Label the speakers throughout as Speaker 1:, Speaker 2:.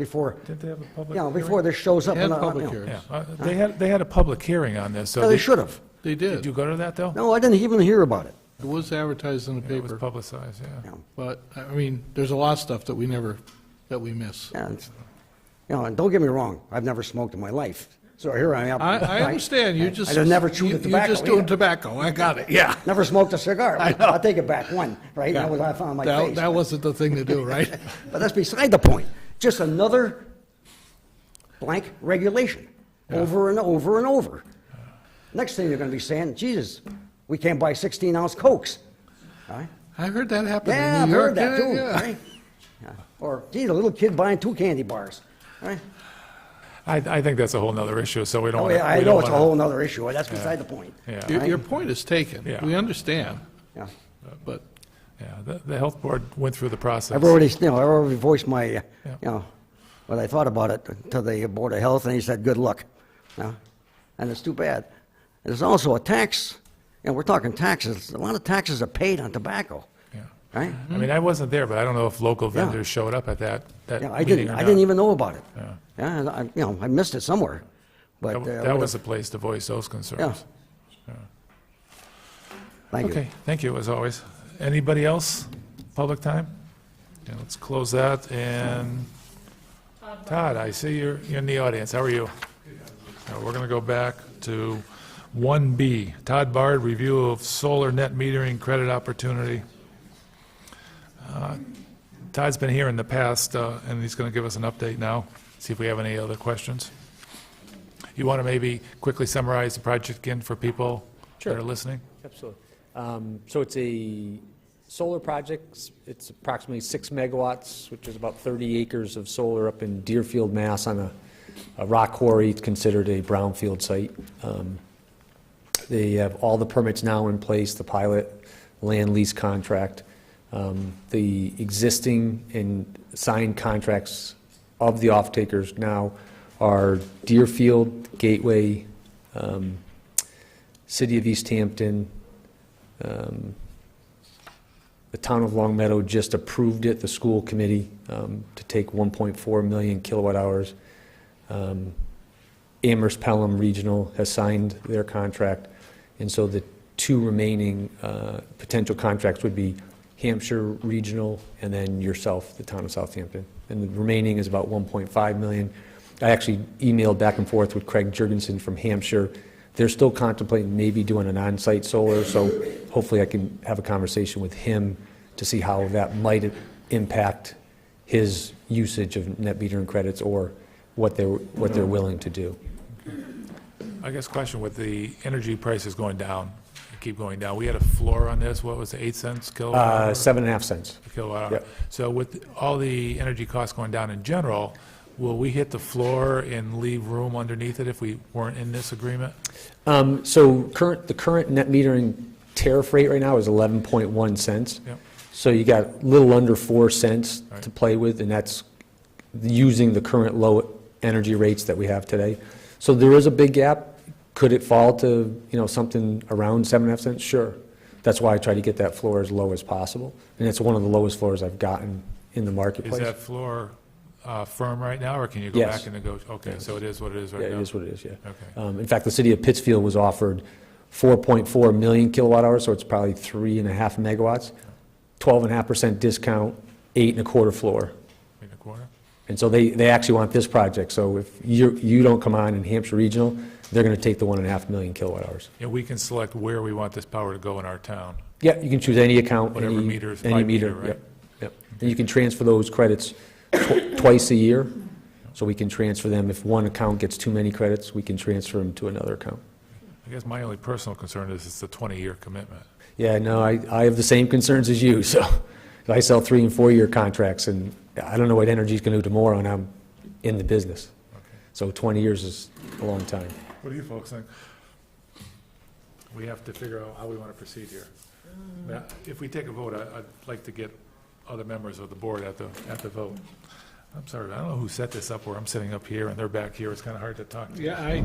Speaker 1: before,
Speaker 2: Didn't they have a public
Speaker 1: you
Speaker 2: hearing?
Speaker 1: know, before this shows up.
Speaker 3: They had
Speaker 1: on a-
Speaker 3: public
Speaker 1: you know.
Speaker 3: hearings.
Speaker 2: Yeah, uh, they had, they had a public hearing on this, so.
Speaker 1: No, they
Speaker 2: did-
Speaker 1: should have.
Speaker 3: They
Speaker 2: Did
Speaker 3: did.
Speaker 2: you
Speaker 3: It
Speaker 2: go to that, though?
Speaker 1: No, I didn't even hear about it.
Speaker 3: was advertised in the
Speaker 2: It was
Speaker 3: paper,
Speaker 2: publicized, yeah.
Speaker 3: but, I mean, there's a lot of stuff that we never, that we miss.
Speaker 1: Yeah, it's- You know, and don't get me wrong, I've never smoked in my life, so here I am.
Speaker 3: I, I
Speaker 1: right?
Speaker 3: understand, you just.
Speaker 1: I've never chewed
Speaker 3: you-
Speaker 1: the tobacco.
Speaker 3: You're just doing
Speaker 1: either.
Speaker 3: tobacco, I got it, yeah.
Speaker 1: Never smoked a cigar.
Speaker 3: I know.
Speaker 1: I'll take it back, one, right? That was what I found on my
Speaker 3: That-
Speaker 1: face.
Speaker 3: That wasn't the thing to do, right?
Speaker 1: But that's beside the point. Just another blank regulation, over and over and over. Next thing you're gonna be saying, Jesus, we can't buy 16-ounce Cokes. All right?
Speaker 3: I heard that happen
Speaker 1: Yeah,
Speaker 3: in
Speaker 1: I've
Speaker 3: New York.
Speaker 1: heard that
Speaker 3: yeah,
Speaker 1: too,
Speaker 3: yeah.
Speaker 1: right? Yeah. Or, geez, a little kid buying two candy bars, right?
Speaker 2: I, I think that's a whole nother issue, so we don't
Speaker 1: Oh,
Speaker 2: want to.
Speaker 1: yeah, I know it's a whole nother issue, but that's beside the point.
Speaker 2: Yeah.
Speaker 3: Your, your point is taken,
Speaker 2: Yeah.
Speaker 3: we understand,
Speaker 1: Yeah.
Speaker 3: but
Speaker 2: Yeah, the, the health board went through the process.
Speaker 1: I've already, you know, I've already voiced my, uh,
Speaker 2: Yeah.
Speaker 1: you know, what I thought about it to the Board of Health, and he said, good luck. You know? And it's too bad. There's also a tax, and we're talking taxes, a lot of taxes are paid on tobacco,
Speaker 2: Yeah.
Speaker 1: right?
Speaker 2: I mean, I wasn't there, but I don't know if local
Speaker 1: Yeah.
Speaker 2: vendors showed up at that, that
Speaker 1: Yeah,
Speaker 2: meeting
Speaker 1: I didn't,
Speaker 2: or
Speaker 1: I
Speaker 2: not.
Speaker 1: didn't even know about it.
Speaker 2: uh, Yeah.
Speaker 1: Yeah, and I, you know, I missed it somewhere, but.
Speaker 2: That-
Speaker 1: uh,
Speaker 2: That
Speaker 1: would've-
Speaker 2: was the place to voice those
Speaker 1: Yeah.
Speaker 2: concerns.
Speaker 1: Thank you.
Speaker 2: Okay, thank you, as always. Anybody else? Public time? Okay, let's close that, and Todd, I see you're, you're in the audience. How are you? Now, we're going to go back to 1B, Todd Bard, review of solar net metering credit opportunity. Uh, Todd's been here in the past, uh, and he's going to give us an update now, see if we have any other questions. You want to maybe quickly summarize the project again for people that are
Speaker 4: Sure.
Speaker 2: listening?
Speaker 4: Absolutely. Um, So it's a solar project. It's approximately six megawatts, which is about 30 acres of solar up in Deerfield, Mass. on a- a rock quarry. It's considered a brownfield site. Um, They have all the permits now in place, the pilot, land lease contract. Um, The existing and signed contracts of the off-takers now are Deerfield, Gateway, um, City of East Hampton, um, the town of Long Meadow just approved it, the school committee, um, to take 1.4 million kilowatt hours. Um, Amherst Pelham Regional has signed their contract, and so the two remaining uh, potential contracts would be Hampshire Regional and then yourself, the town of Southampton. And the remaining is about 1.5 million. I actually emailed back and forth with Craig Jurgensen from Hampshire. They're still contemplating maybe doing an on-site solar, so hopefully I can have a conversation with him to see how that might impact his usage of net metering credits or what they're, what they're willing to do.
Speaker 2: I guess question with the energy prices going down, keep going down, we had a floor on this, what was it, eight cents kilowatt
Speaker 4: Uh,
Speaker 2: hour?
Speaker 4: Seven and a half cents.
Speaker 2: Kilowatt hour.
Speaker 4: Yep.
Speaker 2: So with all the energy costs going down in general, will we hit the floor and leave room underneath it if we weren't in this agreement?
Speaker 4: Um, So current, the current net metering tariff rate right now is 11.1 cents.
Speaker 2: Yep.
Speaker 4: So you got a little under 4 cents to play with, and that's using the current low energy rates that we have today. So there is a big gap. Could it fall to, you know, something around 7.5 cents? Sure. That's why I try to get that floor as low as possible, and it's one of the lowest floors I've gotten in the
Speaker 2: Is
Speaker 4: marketplace.
Speaker 2: that floor uh, firm right now, or can you go
Speaker 4: Yes.
Speaker 2: back and negotiate? Okay, so it is what it is right
Speaker 4: Yeah,
Speaker 2: now?
Speaker 4: it is what it is, yeah.
Speaker 2: Okay.
Speaker 4: Um, In fact, the city of Pittsfield was offered 4.4 million kilowatt hours, so it's probably three and a half megawatts, 12.5% discount, eight and a quarter floor.
Speaker 2: In the corner?
Speaker 4: And so they, they actually want this project, so if you, you don't come on in Hampshire Regional, they're going to take the one and a half million kilowatt hours.
Speaker 2: And we can select where we want this power to go in our town.
Speaker 4: Yeah, you can choose any account,
Speaker 2: Whatever
Speaker 4: any,
Speaker 2: meter is by
Speaker 4: any
Speaker 2: meter,
Speaker 4: meter,
Speaker 2: right?
Speaker 4: yep, yep. And you can transfer those credits tw- twice a year, so we can transfer them, if one account gets too many credits, we can transfer them to another account.
Speaker 2: I guess my only personal concern is it's a 20-year commitment.
Speaker 4: Yeah, no, I, I have the same concerns as you, so I sell three and four-year contracts, and I don't know what energy's gonna do tomorrow, and I'm in the business. So 20 years is a long time.
Speaker 2: What do you folks think? We have to figure out how we want to proceed here. Now, If we take a vote, I- I'd like to get other members of the board at the, at the vote. I'm sorry, I don't know who set this up, where I'm sitting up here and they're back here, it's kind of hard to talk.
Speaker 3: Yeah, I,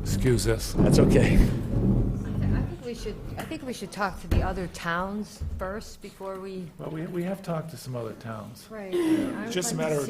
Speaker 2: Excuse us.
Speaker 4: That's okay.
Speaker 5: I think we should, I think we should talk to the other towns first before we.
Speaker 2: Well, we, we have talked to some other towns.
Speaker 5: Right.
Speaker 2: Just a matter of